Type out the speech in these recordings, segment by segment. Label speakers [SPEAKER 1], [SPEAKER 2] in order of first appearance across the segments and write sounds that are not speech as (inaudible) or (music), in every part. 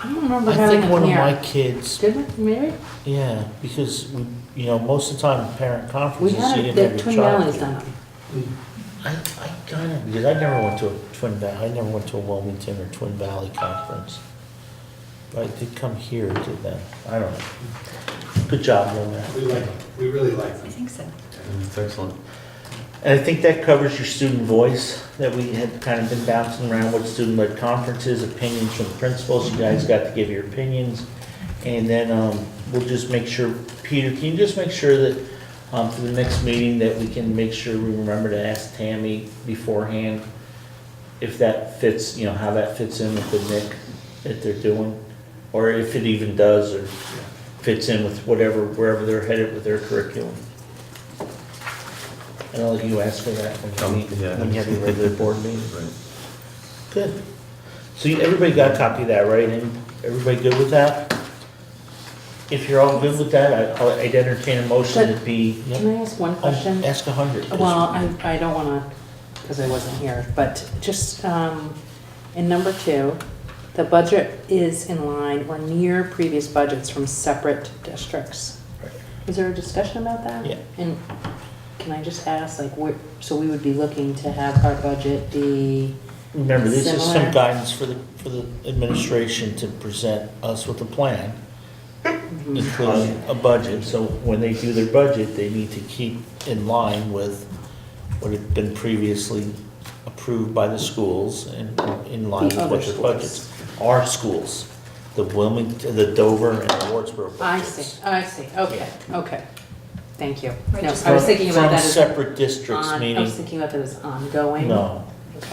[SPEAKER 1] I don't remember
[SPEAKER 2] I think
[SPEAKER 1] having
[SPEAKER 2] one
[SPEAKER 1] it
[SPEAKER 2] of my
[SPEAKER 1] here.
[SPEAKER 2] kids,
[SPEAKER 1] Did it, maybe?
[SPEAKER 2] yeah, because, we- you know, most of the time in parent
[SPEAKER 1] We
[SPEAKER 2] conferences, you
[SPEAKER 1] had it,
[SPEAKER 2] didn't
[SPEAKER 1] the
[SPEAKER 2] have
[SPEAKER 1] Twin
[SPEAKER 2] your child.
[SPEAKER 1] Valleys done it.
[SPEAKER 2] I, I got it, because I never went to a Twin Valley, I never went to a Wilmington or Twin Valley conference. But I did come here to them, I don't know. Good job, Lil Matt.
[SPEAKER 3] We like them, we really like
[SPEAKER 4] I
[SPEAKER 3] them.
[SPEAKER 4] think so.
[SPEAKER 2] That's excellent. And I think that covers your student voice, that we had kind of been bouncing around with student-led conferences, opinions from principals, you guys got to give your opinions. And then, um, we'll just make sure, Peter, can you just make sure that, um, for the next meeting, that we can make sure we remember to ask Tammy beforehand if that fits, you know, how that fits in with the NIC that they're doing, or if it even does, or fits in with whatever, wherever they're headed with their curriculum. And I'll let you ask for that when you, meet-
[SPEAKER 5] Yeah.
[SPEAKER 2] when you have your regular board meeting.
[SPEAKER 5] Right.
[SPEAKER 2] Good. So you- everybody got a copy of that, right? And everybody good with that? If you're all good with that, I- I'll- I'd entertain a motion to be.
[SPEAKER 1] Can I ask one question?
[SPEAKER 2] Ask a hundred.
[SPEAKER 1] Well, I, I don't wanna, cause I wasn't here, but just, um, in number two, the budget is in line or near previous budgets from separate districts.
[SPEAKER 2] Right.
[SPEAKER 1] Is there a discussion about that?
[SPEAKER 2] Yeah.
[SPEAKER 1] And can I just ask, like, where, so we would be looking to have our budget be,
[SPEAKER 2] Remember, this is some
[SPEAKER 1] Similar.
[SPEAKER 2] guidance for the, for the administration to present us with a plan, including a budget. So when they do their budget, they need to keep in line with what had been previously approved by the schools and in line with
[SPEAKER 1] The
[SPEAKER 2] what
[SPEAKER 1] other
[SPEAKER 2] their budgets. Our schools, the Wilmington, the Dover and the Wardsboro budgets.
[SPEAKER 1] I see, I see, okay, okay, thank you.
[SPEAKER 4] Right,
[SPEAKER 1] No,
[SPEAKER 4] just-
[SPEAKER 1] I was thinking about that
[SPEAKER 2] From
[SPEAKER 1] as
[SPEAKER 2] separate districts,
[SPEAKER 1] on, I
[SPEAKER 2] meaning,
[SPEAKER 1] was thinking about that as ongoing.
[SPEAKER 2] no,
[SPEAKER 1] Okay.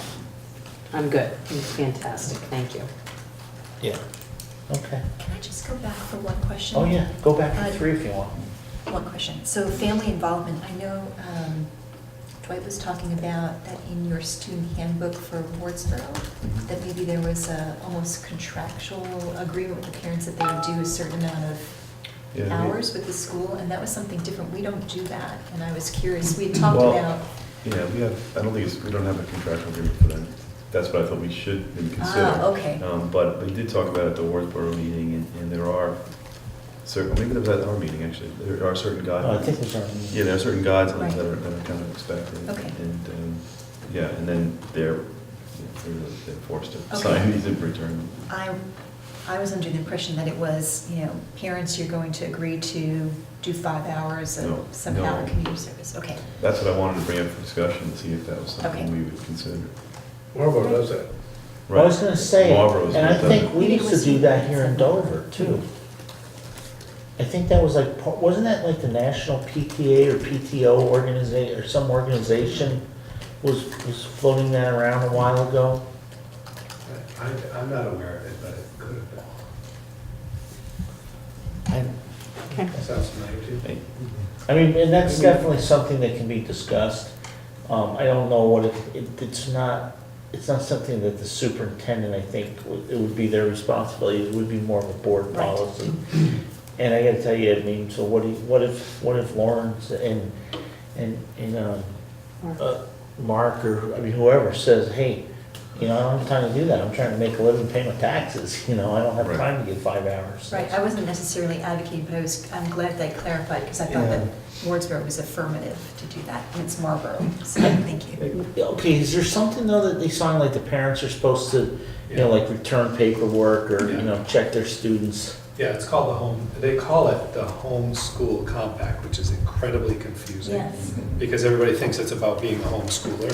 [SPEAKER 1] I'm good, fantastic, thank you.
[SPEAKER 2] yeah, okay.
[SPEAKER 4] Can I just go back for one question?
[SPEAKER 2] Oh, yeah, go back
[SPEAKER 4] Uh,
[SPEAKER 2] to three if you want.
[SPEAKER 4] One question. So family involvement, I know um, Dwight was talking about that in your student handbook for Wardsboro, that maybe there was a almost contractual agreement with the parents that they would do a certain amount of
[SPEAKER 5] Yeah, we-
[SPEAKER 4] hours with the school, and that was something different. We don't do that, and I was curious. We had talked
[SPEAKER 5] Well-
[SPEAKER 4] about,
[SPEAKER 5] Yeah, we have, I don't think it's, we don't have a contractual agreement for that. That's what I thought we should maybe consider.
[SPEAKER 4] ah, okay.
[SPEAKER 5] Um, but we did talk about it at the Wardsboro meeting, and, and there are certain, maybe that was at our meeting, actually, there are certain
[SPEAKER 2] Oh, I
[SPEAKER 5] guidelines.
[SPEAKER 2] think there's already.
[SPEAKER 5] Yeah, there are certain guidelines
[SPEAKER 4] Right.
[SPEAKER 5] that are, that are kind of expected.
[SPEAKER 4] Okay.
[SPEAKER 5] And, um, yeah, and then they're, you know, they're- they're forced to
[SPEAKER 4] Okay.
[SPEAKER 5] sign these in return.
[SPEAKER 4] I, I was under the impression that it was, you know, parents, you're going to agree to do five hours
[SPEAKER 5] No,
[SPEAKER 4] of some
[SPEAKER 5] no.
[SPEAKER 4] hour community service. Okay,
[SPEAKER 5] That's what I wanted to bring up for discussion, to see if that was something
[SPEAKER 4] Okay.
[SPEAKER 5] we would consider.
[SPEAKER 3] Marlboro does that.
[SPEAKER 2] Well, I was gonna say,
[SPEAKER 5] Marlboro's
[SPEAKER 2] and I
[SPEAKER 5] done
[SPEAKER 2] think
[SPEAKER 5] it.
[SPEAKER 2] we
[SPEAKER 4] Maybe it
[SPEAKER 2] used to
[SPEAKER 4] was-
[SPEAKER 2] do that here in Dover too. I think that was like, par- wasn't that like the National PTA or PTO organization, or some organization was, was floating that around a while ago?
[SPEAKER 3] I'm, I'm not aware of it, but it could have been.
[SPEAKER 2] I,
[SPEAKER 1] Okay.
[SPEAKER 3] That sounds familiar to you.
[SPEAKER 5] Hey,
[SPEAKER 2] I mean, and that's definitely something that can be discussed. Um, I don't know what it, it, it's not, it's not something that the superintendent, I think, would- it would be their responsibility, it would be more of a board
[SPEAKER 4] Right.
[SPEAKER 2] policy. And I gotta tell you, I mean, so what do, you- what if, what if Lawrence and, and, and, um,
[SPEAKER 1] Mark.
[SPEAKER 2] uh, Mark or, I mean, whoever says, hey, you know, I don't have time to do that, I'm trying to make a living, pay my taxes, (laughs) you know, I don't have
[SPEAKER 5] Right.
[SPEAKER 2] time to get five hours.
[SPEAKER 4] right, I wasn't necessarily advocating, but I was, I'm glad that clarified, because I thought
[SPEAKER 2] Yeah.
[SPEAKER 4] that Wardsboro was affirmative to do that, and it's Marlboro,
[SPEAKER 5] (clears throat)
[SPEAKER 4] so thank you.
[SPEAKER 2] Okay, is there something though that they sign, like the parents are supposed to, you know, like return paperwork or, you
[SPEAKER 3] Yeah.
[SPEAKER 2] know, check their students?
[SPEAKER 3] Yeah, it's called the home, they call it the homeschool compact, which is incredibly confusing.
[SPEAKER 4] Yes.
[SPEAKER 3] Because everybody thinks it's about being a homeschooler.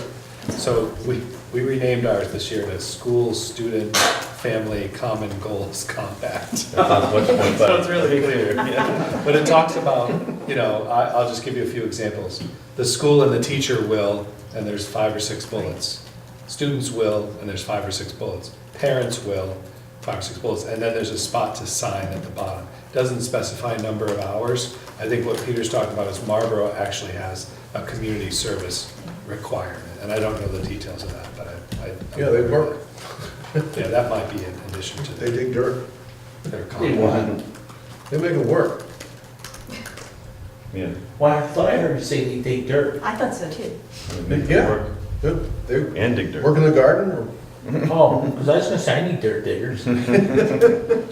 [SPEAKER 3] So we, we renamed ours this year to School Student Family Common Goals Compact.
[SPEAKER 5] That sounds much more
[SPEAKER 2] (laughs)
[SPEAKER 5] better.
[SPEAKER 3] Sounds really
[SPEAKER 5] clear, yeah.
[SPEAKER 3] But it talks about, you know, I, I'll just give you a few examples. The school and the teacher will, and there's five or six bullets. Students will, and there's five or six bullets. Parents will, five or six bullets, and then there's a spot to sign at the bottom. Doesn't specify number of hours. I think what Peter's talking about is Marlboro actually has a community service requirement, and I don't know the details of that, but I. I-
[SPEAKER 6] Yeah, they work.
[SPEAKER 3] (laughs) Yeah, that might be in addition to
[SPEAKER 6] They dig dirt,
[SPEAKER 3] their
[SPEAKER 2] They
[SPEAKER 3] comment.
[SPEAKER 2] want.
[SPEAKER 6] they make it work.
[SPEAKER 5] Yeah,
[SPEAKER 2] Well, I thought I heard you say they dig dirt.
[SPEAKER 4] I thought so too.
[SPEAKER 5] make it
[SPEAKER 6] Yeah.
[SPEAKER 5] work
[SPEAKER 6] They- They
[SPEAKER 5] and dig dirt.
[SPEAKER 6] work in the garden or
[SPEAKER 2] Oh, because I was gonna say, I need dirt diggers.